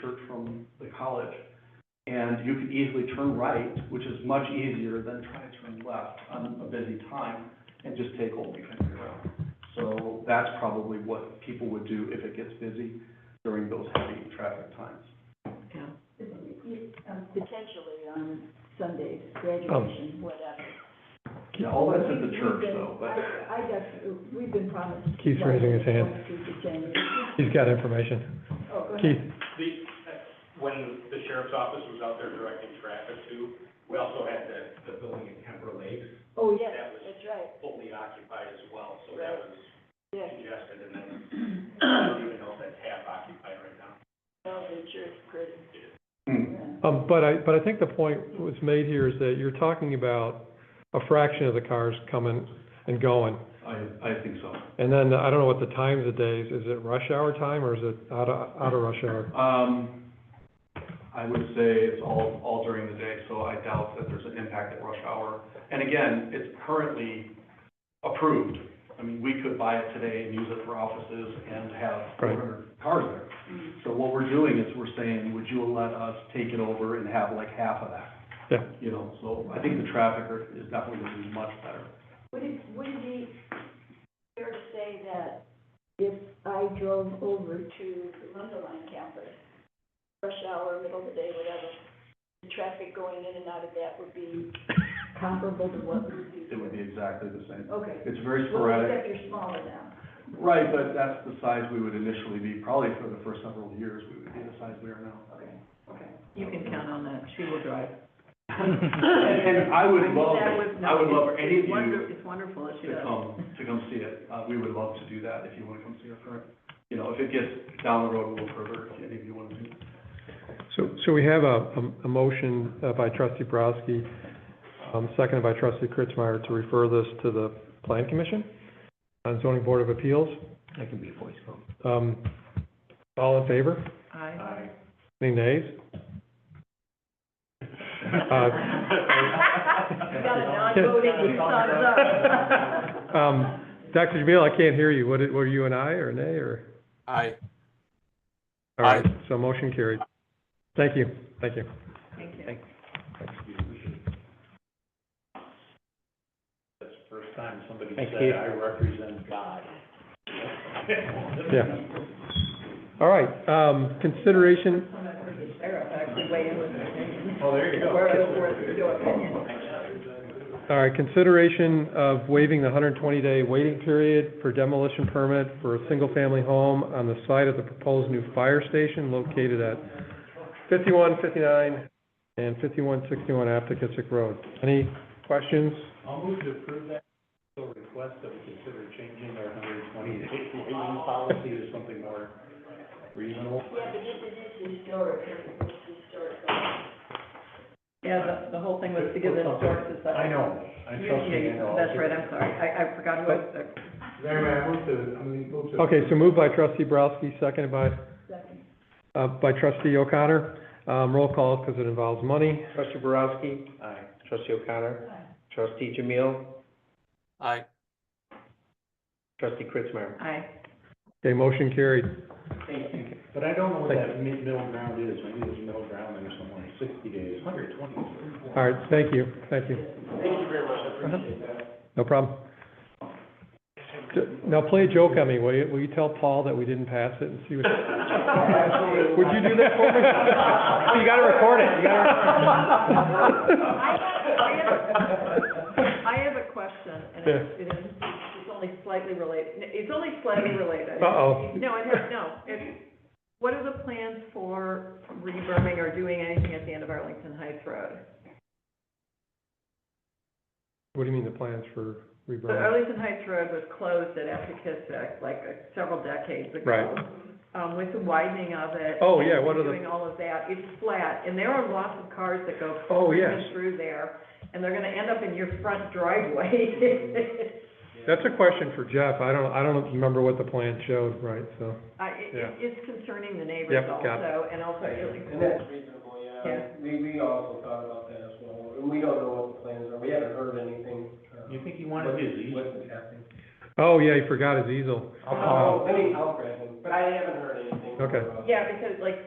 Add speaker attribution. Speaker 1: church from the college. And you could easily turn right, which is much easier than trying to turn left on a busy time and just take Old Country Road. So that's probably what people would do if it gets busy during those heavy traffic times.
Speaker 2: Yeah. Potentially on Sundays,
Speaker 3: Oh.
Speaker 2: graduation, whatever.
Speaker 1: Yeah, all Oh, that's at the church though, but.
Speaker 2: I, I guess, we've been promised.
Speaker 3: Keith's raising his hand. He's got information.
Speaker 2: Oh, go
Speaker 3: Keith,
Speaker 2: ahead.
Speaker 4: The, when the sheriff's office was out there directing traffic too, we also had the, the building in Kemper Lakes
Speaker 2: Oh, yes,
Speaker 4: That was-
Speaker 2: that's right,
Speaker 4: fully occupied as well, so that was
Speaker 2: yes.
Speaker 4: congested and then,
Speaker 3: Oh.
Speaker 4: I don't even know if that's half occupied right now.
Speaker 2: Well, the church pretty,
Speaker 1: Hmm.
Speaker 2: yeah.
Speaker 3: um, but I, but I think the point was made here is that you're talking about a fraction of the cars coming and going.
Speaker 1: I, I think so.
Speaker 3: And then, I don't know what the times of days, is it rush hour time or is it out of, out of rush hour?
Speaker 1: Um, I would say it's all, all during the day, so I doubt that there's an impact at rush hour. And again, it's currently approved. I mean, we could buy it today and use it for offices and have
Speaker 3: Right.
Speaker 1: 400 cars there.
Speaker 2: Mm.
Speaker 1: So what we're doing is we're saying, would you let us take it over and have like half of that?
Speaker 3: Yeah.
Speaker 1: You know, so I think the traffic are- is definitely going to be much better.
Speaker 2: Would it, would it be fair to say that if I drove over to the Lundaline campus, rush hour, middle of the day, whatever, the traffic going in and out of that would be comparable to what we do?
Speaker 1: It would be exactly the same.
Speaker 2: Okay.
Speaker 1: It's very
Speaker 2: Well,
Speaker 1: sporadic.
Speaker 2: except you're smaller now.
Speaker 1: Right, but that's the size we would initially be, probably for the first several years, we would be the size we are now.
Speaker 2: Okay, okay.
Speaker 5: You can count on that, she will drive.
Speaker 1: And, and I would
Speaker 5: I mean,
Speaker 1: love,
Speaker 5: that was
Speaker 1: I would
Speaker 5: not-
Speaker 1: love for any of
Speaker 5: it's wonder-
Speaker 1: you
Speaker 5: It's wonderful that she
Speaker 1: to
Speaker 5: does.
Speaker 1: come, to come see it. Uh, we would love to do that if you want to come see our current, you know, if it gets down the road a little further, if any of you want to do. that.
Speaker 3: So, so we have a, a, a motion uh, by trustee Broski, um, seconded by trustee Kritzmeyer to refer this to the plan commission and zoning board of appeals.
Speaker 6: That can be a voice vote.
Speaker 3: Um, all in favor?
Speaker 5: Aye.
Speaker 3: Any nays? Uh,
Speaker 5: You got a non-voting thumbs up.
Speaker 3: Um, Dr. Jamil, I can't hear you. What, did- were you an aye or a nay or? Aye. All right, so motion carried. Thank you, thank you.
Speaker 5: Thank you.
Speaker 4: That's the first time somebody
Speaker 6: Thank
Speaker 4: said,
Speaker 6: you.
Speaker 4: I represent God.
Speaker 3: Yeah. All right, um, consideration,
Speaker 5: Sarah actually weighed in with her opinion.
Speaker 4: Oh, there you go.
Speaker 5: Where it's worth your opinion.
Speaker 3: all right, consideration of waiving the hundred and twenty day waiting period for demolition permit for a single family home on the site of the proposed new fire station located at fifty-one fifty-nine and fifty-one sixty-one Aptekissick Road. Any questions?
Speaker 4: I'll move to approve that, so request that we consider changing our hundred and twenty day waiting policy to something more reasonable.
Speaker 2: Yeah, but this it is historic, it's historic.
Speaker 5: Yeah, the, the whole thing was to give this historic society.
Speaker 4: I know, I trust you, I know.
Speaker 5: That's right, I'm sorry, I, I forgot who I was,
Speaker 4: Anyway, I move to, I mean, move to.
Speaker 3: Okay, so moved by trustee Browski, seconded by,
Speaker 2: Second.
Speaker 3: uh, by trustee O'Connor. Um, roll call because it involves money.
Speaker 6: Trustee Borowski? Aye. Trustee O'Connor? Trustee Jamil? Aye. Trustee Kritzmeyer?
Speaker 5: aye.
Speaker 3: Okay, motion carried.
Speaker 4: But I don't know what that mid, middle ground is, maybe there's a middle ground there somewhere, sixty days, hundred twenty.
Speaker 3: All right, thank you, thank you. Uh-huh.
Speaker 4: Thank you very much, I appreciate that.
Speaker 3: No problem. J- Now, play a joke on me, will you? Will you tell Paul that we didn't pass it and see what? Would you do that for me? Oh, you gotta record it, you
Speaker 5: I
Speaker 3: gotta.
Speaker 5: have- I have a question, and it it is, it's only slightly related, it's only slightly related.
Speaker 3: Uh-oh.
Speaker 5: No, it has, no, it's, what are the plans for reberming or doing anything at the end of Arlington Heights Road?
Speaker 3: What do you mean the plans for
Speaker 5: So
Speaker 3: rebranding?
Speaker 5: Arlington Heights Road was closed at Epikistic, like uh, several decades ago.
Speaker 3: Right.
Speaker 5: Um, with the widening of it.
Speaker 3: Oh, yeah, what are the-
Speaker 5: Doing all of that, it's flat, and there are lots of cars that go
Speaker 3: Oh, yes.
Speaker 5: through there, and they're gonna end up in your front driveway.
Speaker 3: That's a question for Jeff. I don't, I don't remember what the plan showed, right, so.
Speaker 5: I, it,
Speaker 3: Yeah.
Speaker 5: it's concerning the neighbors
Speaker 3: Yep, got it.
Speaker 5: also, and also
Speaker 7: And that's reasonable, yeah. We, we also thought about that as well, and we don't know what the plans are, we haven't heard anything. uh,
Speaker 4: You think you wanted his easement?
Speaker 7: What's happening. Oh,
Speaker 3: Oh, yeah, he forgot his easel.
Speaker 7: I'll, I mean, I'll grab him, but I haven't heard anything.
Speaker 3: Okay.
Speaker 7: about it.
Speaker 5: Yeah, because like,